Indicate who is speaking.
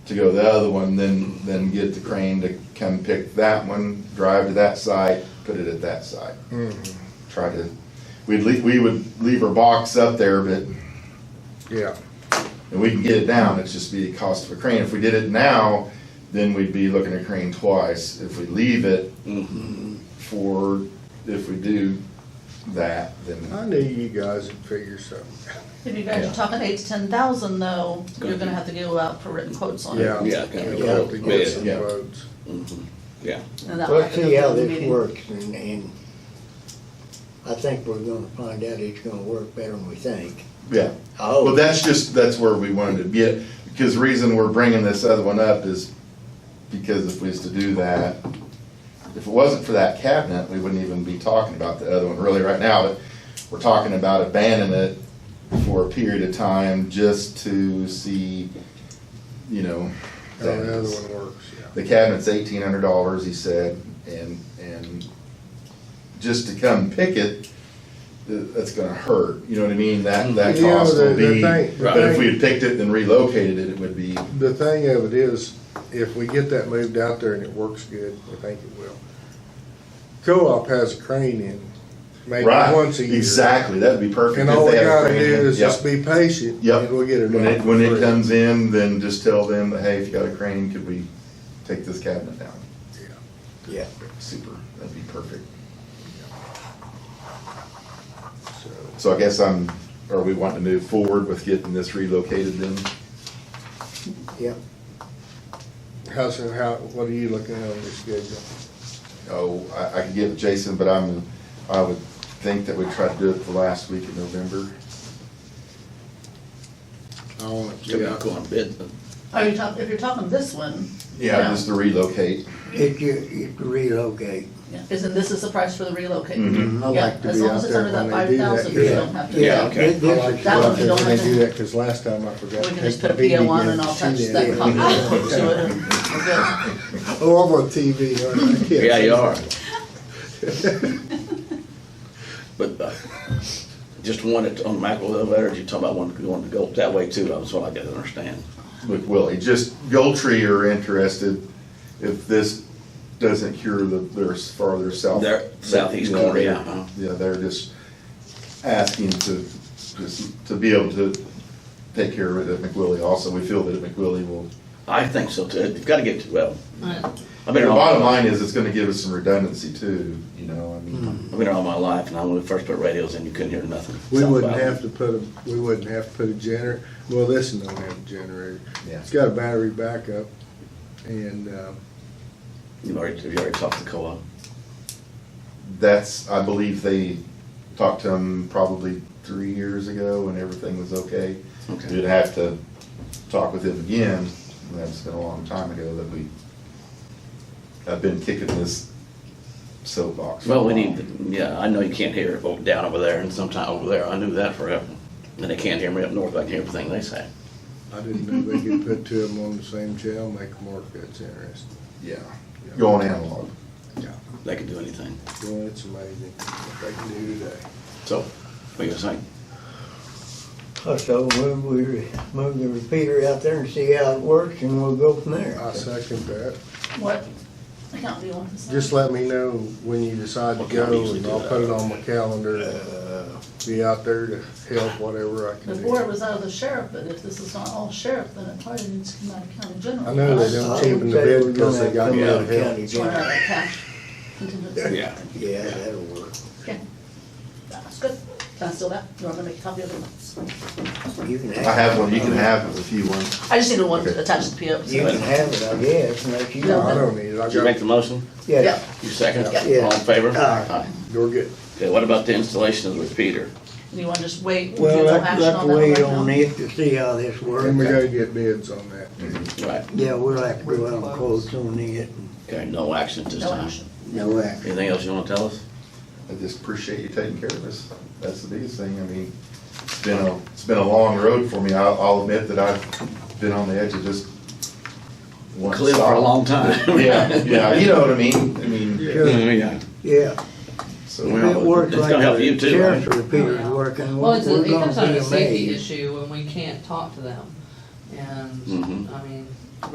Speaker 1: to go to the other one, then, then get the crane to come pick that one, drive to that site, put it at that site. Try to, we'd leave, we would leave our box up there, but,
Speaker 2: yeah.
Speaker 1: and we can get it down, it's just be the cost of a crane. If we did it now, then we'd be looking at crane twice. If we leave it for, if we do that, then,
Speaker 2: I knew you guys would figure something.
Speaker 3: If you guys
Speaker 1: Yeah.
Speaker 3: are talking eight to ten thousand though, you're
Speaker 4: Gonna
Speaker 3: gonna
Speaker 4: be-
Speaker 3: have to go out for written quotes on it.
Speaker 2: Yeah.
Speaker 4: Yeah, kind
Speaker 2: You'll have
Speaker 4: of,
Speaker 2: to
Speaker 4: yeah,
Speaker 2: get some
Speaker 1: Yeah.
Speaker 2: votes.
Speaker 4: yeah.
Speaker 3: And that
Speaker 5: Let's
Speaker 3: might be
Speaker 5: see how
Speaker 3: the
Speaker 5: this
Speaker 3: meeting.
Speaker 5: works and, and I think we're gonna find out it's gonna work better than we think.
Speaker 1: yeah. But
Speaker 5: Oh,
Speaker 1: that's just, that's where we wanted to get, because the reason we're bringing this other one up is because if we was to do that, if it wasn't for that cabinet, we wouldn't even be talking about the other one really right now. But We're talking about abandoning it for a period of time just to see, you know.
Speaker 2: How the other one works, yeah.
Speaker 1: The cabinet's eighteen hundred dollars, he said, and, and just to come pick it, th- that's gonna hurt, you know what I mean? That, that
Speaker 2: Yeah,
Speaker 1: cost
Speaker 2: the-
Speaker 1: will
Speaker 2: the
Speaker 1: be,
Speaker 2: thing- the
Speaker 1: but if
Speaker 2: thing-
Speaker 1: we had picked it and relocated it, it would be,
Speaker 2: The thing of it is, if we get that moved out there and it works good, I think it will. Co-op has a crane in, maybe
Speaker 1: right,
Speaker 2: once a year.
Speaker 1: exactly, that'd be perfect.
Speaker 2: And
Speaker 1: if
Speaker 2: all we
Speaker 1: they had a
Speaker 2: gotta do
Speaker 1: crane in.
Speaker 2: is
Speaker 1: Yep.
Speaker 2: just be patient,
Speaker 1: Yep.
Speaker 2: and we'll get it
Speaker 1: When
Speaker 2: done.
Speaker 1: it, when it comes in, then just tell them, that, hey, if you got a crane, could we take this cabinet down?
Speaker 5: yeah.
Speaker 1: Super, that'd be perfect. So I guess I'm, are we wanting to move forward with getting this relocated then?
Speaker 5: Yep.
Speaker 2: How, so how, what are you looking at on your schedule?
Speaker 1: Oh, I, I could give it to Jason, but I'm, I would think that we try to do it the last week of November.
Speaker 2: I want it.
Speaker 4: So we're not going to bid, but
Speaker 3: Are you talking, if you're talking this one,
Speaker 1: Yeah, just to relocate.
Speaker 5: If you, if you relocate,
Speaker 3: isn't this is the price for the relocate?
Speaker 1: Mhm.
Speaker 2: I like
Speaker 3: Yeah,
Speaker 2: to
Speaker 3: as
Speaker 2: be
Speaker 3: long
Speaker 2: out
Speaker 3: as it's
Speaker 2: there
Speaker 3: under that
Speaker 2: when they do that.
Speaker 3: 5,000, you
Speaker 2: Yeah.
Speaker 3: don't have to-
Speaker 4: Yeah, okay.
Speaker 2: I like to
Speaker 5: This
Speaker 2: go
Speaker 3: That
Speaker 2: out
Speaker 3: one we
Speaker 2: there
Speaker 3: don't
Speaker 2: when
Speaker 3: have
Speaker 2: they do
Speaker 3: to-
Speaker 2: that, cause last time I forgot.
Speaker 3: We
Speaker 2: to
Speaker 3: can
Speaker 2: take
Speaker 3: just
Speaker 2: my
Speaker 3: put a
Speaker 2: bead
Speaker 3: PO on
Speaker 2: again.
Speaker 3: and I'll
Speaker 2: She
Speaker 3: touch
Speaker 2: did.
Speaker 3: that copy to it. and we're good.
Speaker 2: Oh, I'm on TV, aren't I?
Speaker 4: yeah, you are. But uh, just wanted, on Michael Elevator, you talking about one going to go that way too, that's what I got to understand.
Speaker 1: With Willie, just Goldtree are interested if this doesn't cure the, their s- farther south.
Speaker 4: Their southeast
Speaker 1: Yeah,
Speaker 4: corner,
Speaker 1: they're-
Speaker 4: yeah, huh?
Speaker 1: Yeah, they're just asking to, just to be able to take care of it at McWillie also. We feel that McWillie will.
Speaker 4: I think so too, you've got to get to, well, I've been
Speaker 1: The
Speaker 4: around.
Speaker 1: bottom line is it's gonna give us some redundancy too, you know, I mean,
Speaker 4: I've been around my life, and I when we first put radios in, you couldn't hear nothing. uh,
Speaker 2: We
Speaker 4: Something
Speaker 2: wouldn't
Speaker 4: about
Speaker 2: have to put a, we wouldn't have to put a generator, well, this one don't have a generator.
Speaker 1: Yeah.
Speaker 2: It's got a battery backup and, uh,
Speaker 4: You already, you already talked to co-op.
Speaker 1: that's, I believe they talked to them probably three years ago when everything was okay.
Speaker 4: Okay.
Speaker 1: We'd have to talk with him again, and that's been a long time ago that we, I've been kicking this soapbox. for a
Speaker 4: Well, we
Speaker 1: while.
Speaker 4: need, to- yeah, I know you can't hear it over- down over there and sometime over there. I knew that forever. And they can't hear me up north. I can hear everything they say.
Speaker 2: I didn't know they could put two of them on the same channel, make them work. That's interesting.
Speaker 1: Yeah, go on analog.
Speaker 4: They can do anything.
Speaker 2: Well, it's amazing what they can do today.
Speaker 4: So, what you saying?
Speaker 5: So move, we move the repeater out there and see how it works and we'll go from there.
Speaker 2: I second that.
Speaker 3: What account do you want this on?
Speaker 2: Just let me know when you decide to
Speaker 4: What kind of
Speaker 2: go
Speaker 4: music
Speaker 2: and
Speaker 4: do
Speaker 2: I'll
Speaker 4: that? Uh,
Speaker 2: put it on my calendar and be out there to help whatever I can do.
Speaker 3: Before it was out of the sheriff, but if this is not all sheriff, then it probably needs to come out of county general.
Speaker 2: I know they
Speaker 5: I
Speaker 2: don't
Speaker 5: would
Speaker 2: cheapen the
Speaker 5: say
Speaker 2: bid
Speaker 5: we're
Speaker 2: because
Speaker 5: gonna
Speaker 2: they got
Speaker 5: come
Speaker 2: me
Speaker 5: out
Speaker 2: out
Speaker 5: of
Speaker 2: of
Speaker 5: county
Speaker 2: hell.
Speaker 3: It's one out of
Speaker 5: general.
Speaker 3: that cash contingency.
Speaker 4: Yeah.
Speaker 5: Yeah, that'll work.
Speaker 3: Okay. That's good. Can I steal that? You want to make a copy of it?
Speaker 5: You can have.
Speaker 1: I have one,
Speaker 5: it.
Speaker 1: you can have it if you want.
Speaker 3: I just need the one to attach to the PO.
Speaker 5: You can have it, I guess, unless you.
Speaker 3: No,
Speaker 2: No, I
Speaker 5: want it.
Speaker 2: don't need it. I
Speaker 4: Did you make
Speaker 2: got,
Speaker 4: the motion?
Speaker 5: Yeah.
Speaker 4: You second?
Speaker 5: Yeah.
Speaker 4: All in favor?
Speaker 5: Aye.
Speaker 2: you're good.
Speaker 4: Okay, what about the installation of the repeater?
Speaker 3: Do you want to just wait? and
Speaker 5: Well,
Speaker 3: do no
Speaker 5: let's,
Speaker 3: action
Speaker 5: let's
Speaker 3: on that one
Speaker 5: wait
Speaker 3: right
Speaker 5: on
Speaker 3: now?
Speaker 5: it to see how this
Speaker 2: Then we
Speaker 5: works.
Speaker 2: gotta get bids on that.
Speaker 4: Right.
Speaker 5: Yeah, we'll have to go out and quotes on it.
Speaker 4: Okay, no action at this
Speaker 3: No
Speaker 4: time.
Speaker 3: action.
Speaker 5: No action.
Speaker 4: Anything else you want to tell us?
Speaker 1: I just appreciate you taking care of us. That's the biggest thing. I mean, it's been a, it's been a long road for me. I'll, I'll admit that I've been on the edge of just. one
Speaker 4: Cliff for a
Speaker 1: stop.
Speaker 4: long time.
Speaker 1: Yeah, yeah, you know what I mean? I mean,
Speaker 2: Good.
Speaker 4: Yeah.
Speaker 5: Yeah. If
Speaker 1: so,
Speaker 4: Well,
Speaker 5: it works
Speaker 4: it's
Speaker 5: like
Speaker 4: gonna help
Speaker 5: the
Speaker 4: you too,
Speaker 5: sheriff's
Speaker 4: right?
Speaker 5: repeater's working,
Speaker 6: Oh, Well, it's,
Speaker 5: we're
Speaker 6: a-
Speaker 5: we're
Speaker 6: it comes out
Speaker 5: gonna be
Speaker 6: of a safety
Speaker 5: amazed.
Speaker 6: issue when we can't talk to them. And,
Speaker 4: Mhm.
Speaker 6: I mean,